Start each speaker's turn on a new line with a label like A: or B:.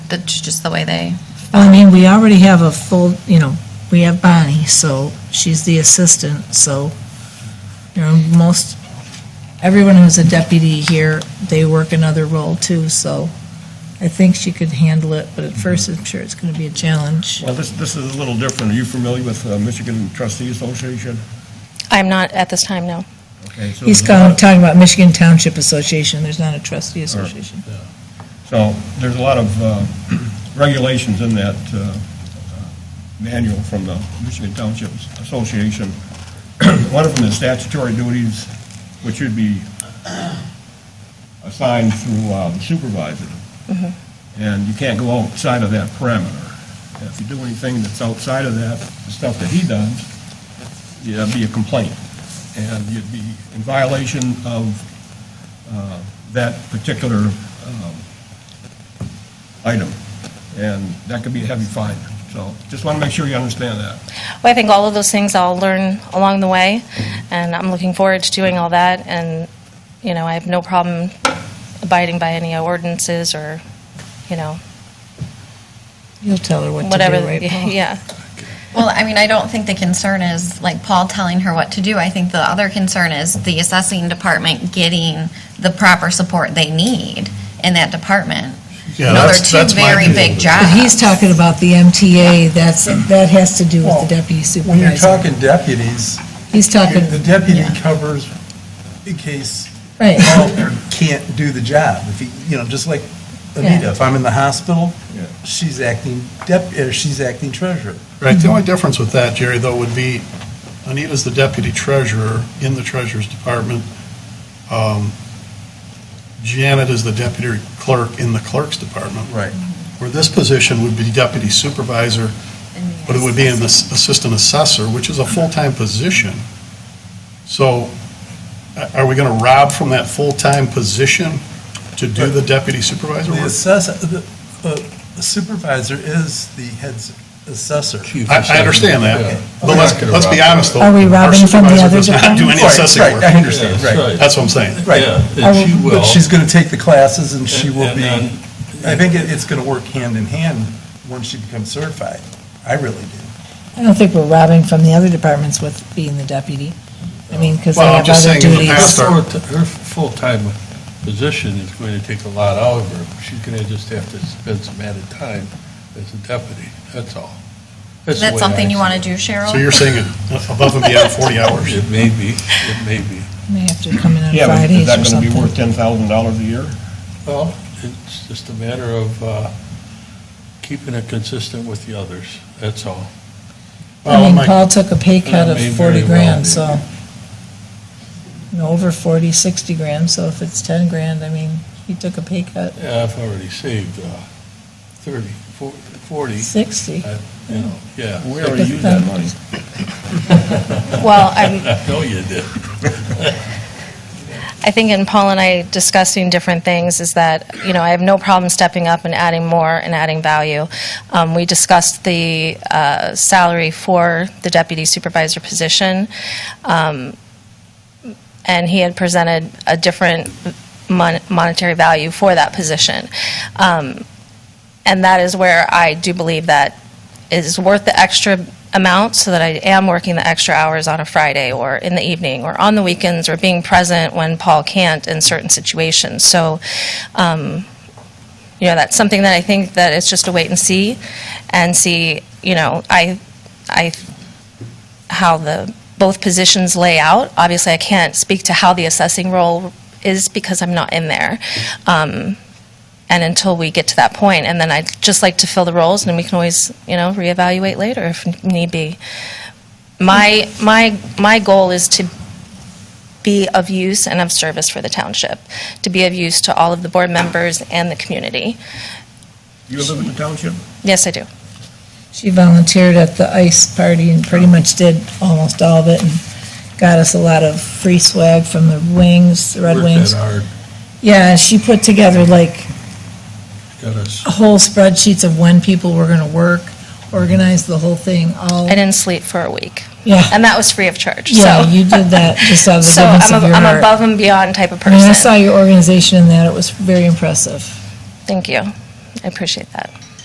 A: that's just the way they,
B: Well, I mean, we already have a full, you know, we have Bonnie, so she's the assistant, so, you know, most, everyone who's a deputy here, they work another role too, so I think she could handle it, but at first, I'm sure it's gonna be a challenge.
C: Well, this, this is a little different. Are you familiar with uh, Michigan Trustees Association?
D: I'm not at this time, no.
C: Okay, so
B: He's
C: there's a lot-
B: kind of talking about Michigan Township Association, there's not a trustee association.
C: So there's a lot of uh, regulations in that uh, manual from the Michigan Township Association. One of them is statutory duties, which should be assigned through uh, the supervisor. And you can't go outside of that parameter. If you do anything that's outside of that, the stuff that he does, it'd be a complaint. And you'd be in violation of uh, that particular um, item, and that could be a heavy fine. So just want to make sure you understand that.
D: Well, I think all of those things I'll learn along the way,
B: Mm-hmm.
D: and I'm looking forward to doing all that, and, you know, I have no problem abiding by any ordinances or, you know,
B: You'll tell her what to do,
D: whatever,
B: right, Paul?
D: yeah.
A: well, I mean, I don't think the concern is like Paul telling her what to do. I think the other concern is the assessing department getting the proper support they need in that department.
E: Yeah,
A: No, they're
E: that's-
A: two
E: that's my
A: very
E: deal
A: big
E: with it.
A: jobs.
B: But he's talking about the MTA, that's, that has to do with the deputy
E: When you're
B: supervisor.
E: talking deputies,
B: He's talking.
E: the deputy
B: yeah,
E: covers in case
B: Right.
E: Paul can't do the job. If he, you know, just like Anita,
B: Yeah.
E: if I'm in the hospital,
C: Yeah.
E: she's acting dep, or she's acting treasurer.
F: Right, the only difference with that, Jerry, though, would be Anita's the deputy treasurer in the treasurer's department. Um, Janet is the deputy clerk in the clerk's department.
E: Right.
F: Where this position would be deputy supervisor, but it would be an ass- assistant assessor, which is a full-time position. So a- are we going to rob from that full-time position to do the deputy supervisor
E: The
F: work?
E: assessor, the the supervisor is the head's assessor.
F: I, I understand that, but let's, let's be honest, though.
B: Are we
F: our
B: robbing from the
F: supervisor
B: other
F: does not Do any
E: Right,
F: assessing
E: right,
F: work.
E: I understand,
G: That's
E: right,
G: right.
F: That's what I'm saying.
E: right.
G: Yeah, and she will.
E: But she's going to take the classes and she
G: And-
E: will
G: and
E: be,
G: then-
E: I think it- it's going to work hand in hand once she becomes certified. I really do.
B: I don't think we're robbing from the other departments with being the deputy. I mean, because they
F: Well,
B: have
F: I'm just
B: other
F: saying in the
B: duties.
F: past-
G: Her full- her full-time position is going to take a lot out of her. She's going to just have to spend some added time as a deputy, that's all. That's the
A: That's
G: way
A: something
G: I
A: you
G: see
A: want to
G: it.
A: do, Cheryl?
F: So you're saying it above and beyond 40 hours?
G: It may be, it may be.
B: May have to come in on
C: Yeah, but
B: Fridays
C: is that
B: or
C: going to be worth
B: something.
C: $10,000 a year?
G: Well, it's just a matter of uh, keeping it consistent with the others, that's all.
B: I mean,
F: Well, Oh, my-
B: Paul took a pay cut
G: That
B: of
G: may
B: 40
G: very well
B: grand,
G: be.
B: so, you know, over 40, 60 grand, so if it's 10 grand, I mean, he took a pay cut,
G: Yeah, I've already saved uh, 30, 40, 40,
B: 60.
G: I- you know, yeah.
C: We already used that money.
D: Well, I'm,
G: I know you did.
D: I think in Paul and I discussing different things is that, you know, I have no problem stepping up and adding more and adding value. Um, we discussed the uh, salary for the deputy supervisor position, um, and he had presented a different mon- monetary value for that position. Um, and that is where I do believe that it is worth the extra amount so that I am working the extra hours on a Friday or in the evening or on the weekends or being present when Paul can't in certain situations. So, um, you know, that's something that I think that it's just a wait and see and see, you know, I, I, how the, both positions lay out. Obviously, I can't speak to how the assessing role is because I'm not in there. Um, and until we get to that point, and then I'd just like to fill the roles, and then we can always, you know, reevaluate later if need be. My, my, my goal is to be of use and of service for the township, to be of use to all of the board members and the community.
C: You live in the township?
D: Yes, I do.
B: She volunteered at the ICE party and pretty much did almost all of it and got us a lot of free swag from the Wings, the Red
G: Worked
B: Wings.
G: that hard,
B: Yeah, she put together like
G: got us
B: whole spreadsheets of when people were gonna work, organized the whole thing, all,
D: I didn't sleep for a week,
B: yeah.
D: and that was free of charge, so.
B: Yeah, you did that just out of the
D: So
B: goodness of
D: I'm, a-
B: your
D: I'm
B: heart.
D: above and beyond type of
B: I mean, I
D: person.
B: saw your organization in that, it was very impressive.
D: Thank you. I appreciate that.